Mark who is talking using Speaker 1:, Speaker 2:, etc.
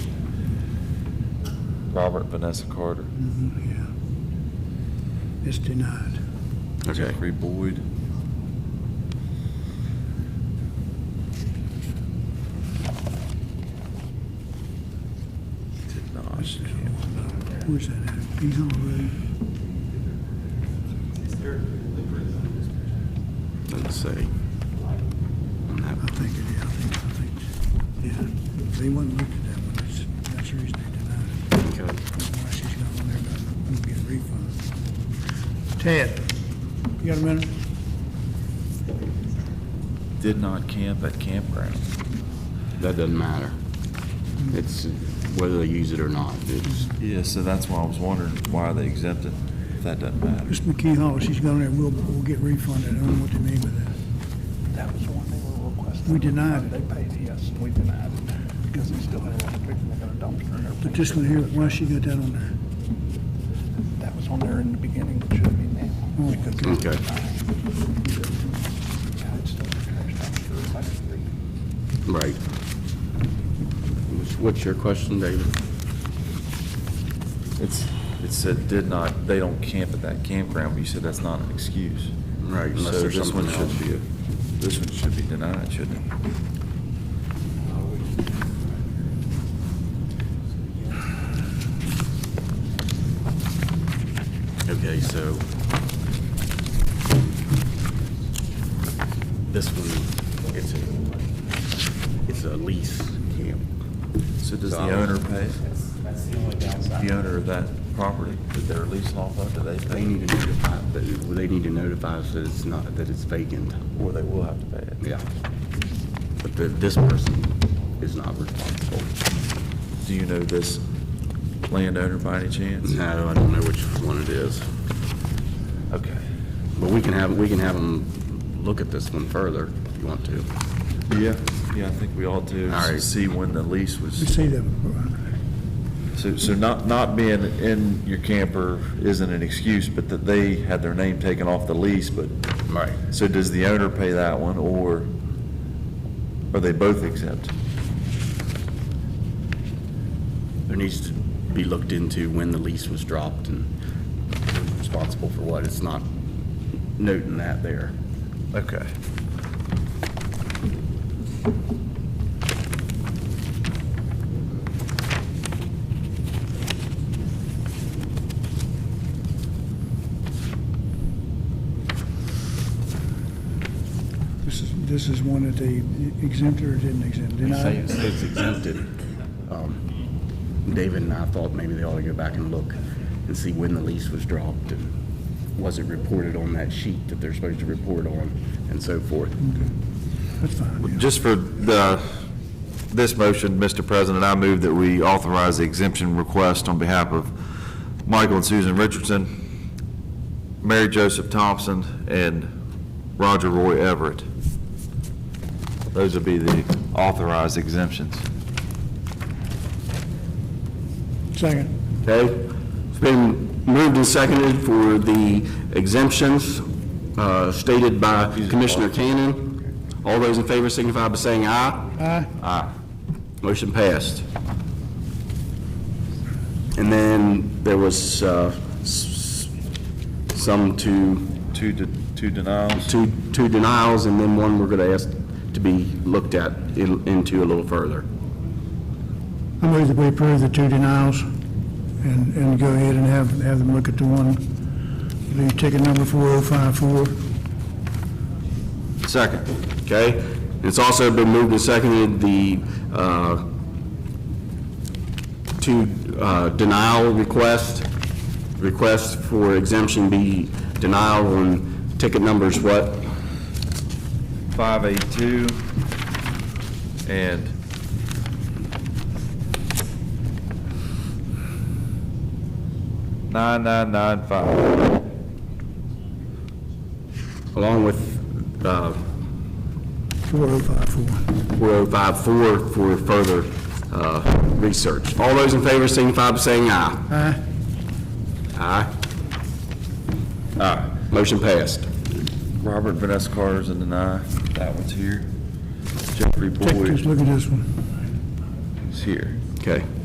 Speaker 1: Robert Vanessa Carter.
Speaker 2: Yeah. It's denied.
Speaker 3: Okay.
Speaker 1: Jeffrey Boyd. Did not.
Speaker 2: Where's that at? Pecan Road?
Speaker 3: Let's see.
Speaker 2: I think it is. I think, I think, yeah. They wouldn't look at that one. That's, that's the reason they denied it.
Speaker 3: Okay.
Speaker 2: Why she's got one there, but I'm gonna get a refund. Ted, you got a minute?
Speaker 1: Did not camp at campground.
Speaker 3: That doesn't matter. It's whether they use it or not. It's,
Speaker 1: Yeah, so that's why I was wondering why they exempted. If that doesn't matter.
Speaker 2: Miss McKee Hall, she's gone there. We'll, we'll get refunded. I don't know what they mean by that.
Speaker 4: That was the one they were requesting.
Speaker 2: We denied it.
Speaker 4: They paid yes, and we denied it, because they still had a lot of people that got a dumpster and everything.
Speaker 2: But this one here, why she got that on there?
Speaker 4: That was on there in the beginning, it should be now.
Speaker 2: Oh,
Speaker 4: because
Speaker 2: okay.
Speaker 4: it's
Speaker 3: Okay.
Speaker 4: denied. Yeah, it's still a trash dumpster, it's like a big-
Speaker 3: right. What's- What's your question, David?
Speaker 1: It's, it said did not, they don't camp at that campground, but you said that's not an excuse.
Speaker 3: Right, unless
Speaker 1: So
Speaker 3: there's
Speaker 1: this one
Speaker 3: something
Speaker 1: should
Speaker 3: else.
Speaker 1: be, a- this one should be denied, shouldn't it?
Speaker 3: Okay, so. This one, it's a, it's a lease camp.
Speaker 1: So does the
Speaker 3: So-
Speaker 1: owner pay?
Speaker 5: That's, that's the only downside.
Speaker 1: The owner of that property, that they're leasing off of, do they
Speaker 3: They
Speaker 1: pay?
Speaker 3: need to notify, that- they need to notify us that it's not, that it's vacant.
Speaker 1: Or they will have to pay it?
Speaker 3: Yeah. But the- this person is not responsible.
Speaker 1: Do you know this landowner by any chance?
Speaker 3: No, I don't know which one it is.
Speaker 1: Okay.
Speaker 3: But we can have, we can have them look at this one further if you want to.
Speaker 1: Yeah, yeah, I think we ought to
Speaker 3: All right.
Speaker 1: see when the lease
Speaker 2: We
Speaker 1: was,
Speaker 2: see that before.
Speaker 1: so, so not, not being in your camper isn't an excuse, but that they had their name taken off the lease, but,
Speaker 3: Right.
Speaker 1: so does the owner pay that one, or are they both exempt?
Speaker 3: There needs to be looked into when the lease was dropped and who's responsible for what. It's not noting that there.
Speaker 1: Okay.
Speaker 2: This is, this is one that they exempted or didn't exempt,
Speaker 3: You say
Speaker 2: denied?
Speaker 3: it's- It's exempted. Um, David and I thought maybe they ought to go back and look and see when the lease was dropped and was it reported on that sheet that they're supposed to report on and so forth.
Speaker 2: That's fine, yeah.
Speaker 6: Just for the, this motion, Mr. President, I move that we authorize the exemption request on behalf of Michael and Susan Richardson, Mary Joseph Thompson, and Roger Roy Everett. Those would be the authorized exemptions.
Speaker 2: Second,
Speaker 7: Okay, it's been moved and seconded for the exemptions uh, stated by Commissioner Cannon. All those in favor signify by saying aye.
Speaker 2: aye?
Speaker 7: Aye. Motion passed. And then there was uh, s- s- some to,
Speaker 1: Two, de- two denials?
Speaker 7: two two denials, and then one we're going to ask to be looked at in- into a little further.
Speaker 2: I move that we approve the two denials and, and go ahead and have, have them look at the one, the ticket number 4054.
Speaker 6: Second.
Speaker 7: Okay? It's also been moved and seconded, the uh, two uh, denial request, request for exemption be denial on ticket numbers what?
Speaker 6: 582 and 9995.
Speaker 7: Along with uh,
Speaker 2: 4054.
Speaker 7: 4054 for further uh, research. All those in favor signify by saying aye.
Speaker 2: Aye?
Speaker 7: Aye. Aye. Motion passed.
Speaker 1: Robert Vanessa Carter's a deny, that one's here. Jeffrey oh
Speaker 2: Take, just
Speaker 1: Boyd
Speaker 2: look at this one.
Speaker 1: is here.
Speaker 7: Okay.